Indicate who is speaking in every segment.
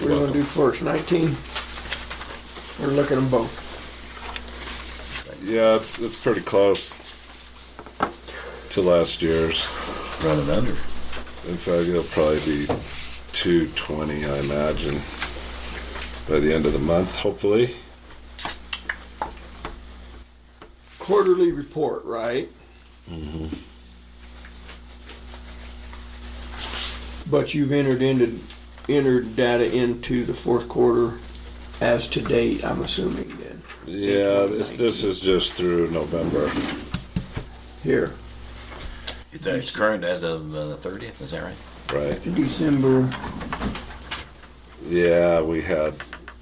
Speaker 1: we wanna do first, nineteen? We're looking at them both.
Speaker 2: Yeah, it's it's pretty close to last year's.
Speaker 3: running under.
Speaker 2: In fact, it'll probably be 220, I imagine, by the end of the month, hopefully.
Speaker 1: Quarterly report, right? But you've entered into, entered data into the fourth quarter as to date, I'm assuming then,
Speaker 2: Yeah, this, this is just through November.
Speaker 1: here.
Speaker 3: It's, uh, it's current as of uh, the 30th, is that right?
Speaker 2: Right.
Speaker 1: December,
Speaker 2: Yeah, we had,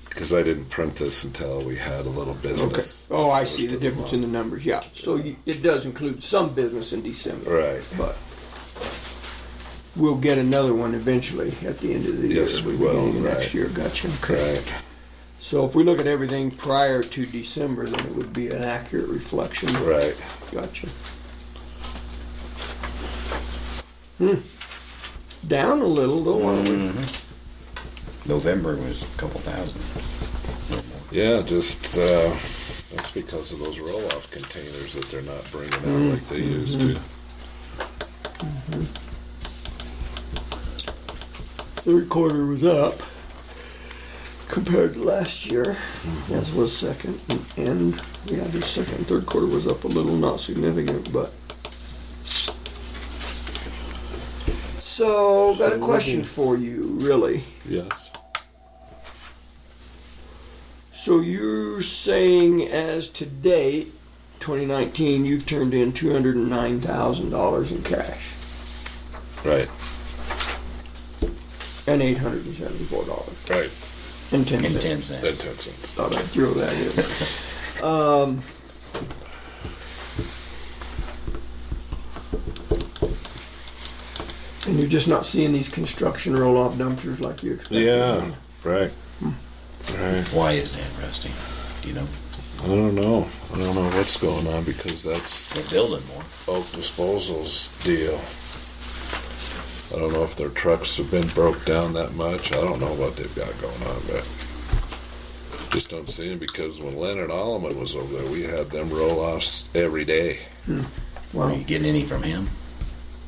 Speaker 2: because I didn't print this until we had a little
Speaker 1: okay.
Speaker 2: business.
Speaker 1: Oh, I see the difference in the numbers, yeah. So you- it does include some business in December.
Speaker 2: Right.
Speaker 1: but we'll get another one eventually at the end of the year.
Speaker 2: Yes, we will,
Speaker 1: beginning of Next
Speaker 2: right.
Speaker 1: year, gotcha.
Speaker 2: Right.
Speaker 1: So if we look at everything prior to December, then it would be an accurate reflection.
Speaker 2: Right.
Speaker 1: Gotcha. Hmm. Hmm. Down a little though, aren't we?
Speaker 3: November was a couple thousand.
Speaker 2: Yeah, just uh, that's because of those roll-off containers that they're not bringing out like they used to.
Speaker 1: Third quarter was up compared to last year, as was second and, yeah, the second, third quarter was up a little, not significant, but. So, got a question for you, really.
Speaker 2: Yes.
Speaker 1: So you're saying as to date, 2019, you've turned in $209,000 in cash
Speaker 2: Right.
Speaker 1: and $874
Speaker 2: Right.
Speaker 1: and 10
Speaker 3: In
Speaker 1: cents.
Speaker 3: 10 cents.
Speaker 2: That ten cents.
Speaker 1: Thought I'd throw that in. um, and you're just not seeing these construction roll-off dumpsters like you expected.
Speaker 2: Yeah. Right. Right.
Speaker 3: Why is that, Rusty? Do you know?
Speaker 2: I don't know. I don't know what's going on because that's
Speaker 3: They're building more.
Speaker 2: Oak Disposal's deal. I don't know if their trucks have been broke down that much. I don't know what they've got going on, but just don't see them because when Leonard Alleman was over there, we had them roll offs every day.
Speaker 3: Are
Speaker 1: Wow.
Speaker 3: you getting any from him?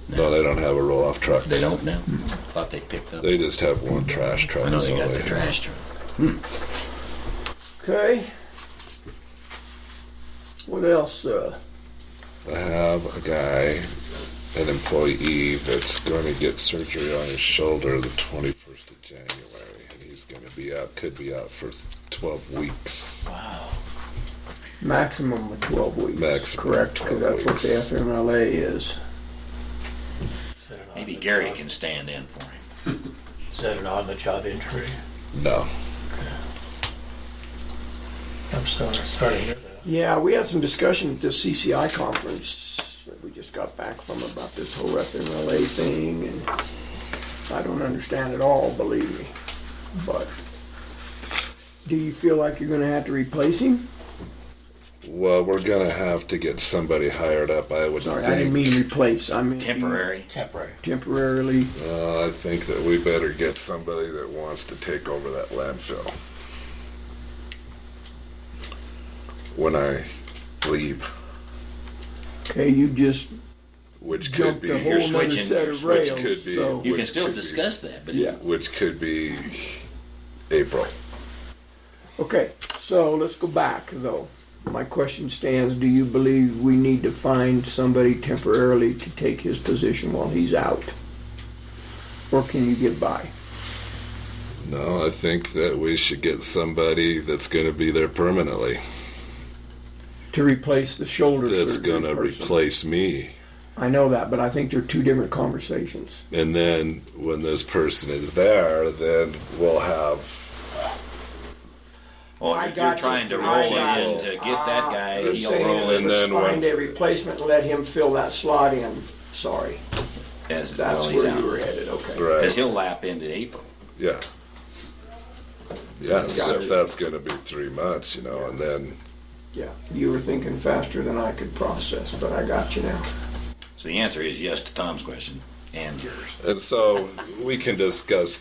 Speaker 2: No, they don't have a roll off truck.
Speaker 3: They don't now? Thought they picked up.
Speaker 2: They just have one trash truck.
Speaker 3: I know they
Speaker 2: That's
Speaker 3: got
Speaker 2: all
Speaker 3: the
Speaker 2: have.
Speaker 3: trash truck.
Speaker 1: Okay. What else? Uh,
Speaker 2: I have a guy, an employee, that's going to get surgery on his shoulder the 21st of January, and he's going to be out, could be out for 12 weeks.
Speaker 1: maximum of 12 weeks.
Speaker 2: Maximum
Speaker 1: correct, because
Speaker 2: 12
Speaker 1: that's what the
Speaker 2: weeks.
Speaker 1: FMLA is.
Speaker 3: Maybe Gary can stand in for him.
Speaker 4: Is that an on-the-job injury?
Speaker 2: No.
Speaker 4: I'm sorry, starting here though.
Speaker 1: Yeah, we had some discussion at this CCI conference that we just got back from about this whole FMLA thing, and I don't understand it all, believe me. But do you feel like you're gonna have to replace him?
Speaker 2: Well, we're going to have to get somebody hired up, I would
Speaker 1: Sorry,
Speaker 2: think.
Speaker 1: I didn't mean replace, I meant.
Speaker 3: Temporary.
Speaker 4: Temporary.
Speaker 1: Temporarily,
Speaker 2: Uh, I think that we better get somebody that wants to take over that landfill. When I leave,
Speaker 1: okay, you just
Speaker 2: which could
Speaker 1: jumped
Speaker 2: be
Speaker 1: a
Speaker 3: you're
Speaker 1: whole nother
Speaker 3: switching-
Speaker 1: set of
Speaker 2: you're
Speaker 1: rails,
Speaker 2: switch- could be.
Speaker 1: so.
Speaker 3: You can
Speaker 2: Which
Speaker 3: still
Speaker 2: could be.
Speaker 3: discuss that, but
Speaker 1: Yeah.
Speaker 2: which could be April.
Speaker 1: Okay, so let's go back though. My question stands, do you believe we need to find somebody temporarily to take his position while he's out? Or can you get by?
Speaker 2: No, I think that we should get somebody that's going to be there permanently.
Speaker 1: To replace the shoulder
Speaker 2: That's
Speaker 1: surgery
Speaker 2: going to
Speaker 1: person?
Speaker 2: replace me.
Speaker 1: I know that, but I think they're two different conversations.
Speaker 2: And then when this person is there, then we'll have.
Speaker 3: Oh,
Speaker 1: I
Speaker 3: you're
Speaker 1: got you.
Speaker 3: trying to
Speaker 1: I
Speaker 3: roll
Speaker 1: got
Speaker 3: it in
Speaker 1: you.
Speaker 3: to get that guy.
Speaker 1: You're
Speaker 3: He'll
Speaker 1: saying
Speaker 3: roll in
Speaker 1: let's
Speaker 2: then
Speaker 1: Find
Speaker 2: when-
Speaker 1: a replacement and let him fill that slot in. Sorry,
Speaker 3: as
Speaker 1: that's
Speaker 3: while he's
Speaker 1: where you were
Speaker 3: out.
Speaker 1: headed, okay.
Speaker 3: Because
Speaker 2: Right.
Speaker 3: he'll lap into April.
Speaker 2: Yeah. Yes,
Speaker 1: Got
Speaker 2: if
Speaker 1: it.
Speaker 2: that's going to be three months, you know, and then.
Speaker 1: Yeah, you were thinking faster than I could process, but I got you now.
Speaker 3: So the answer is yes to Tom's question and yours.
Speaker 2: And so we can discuss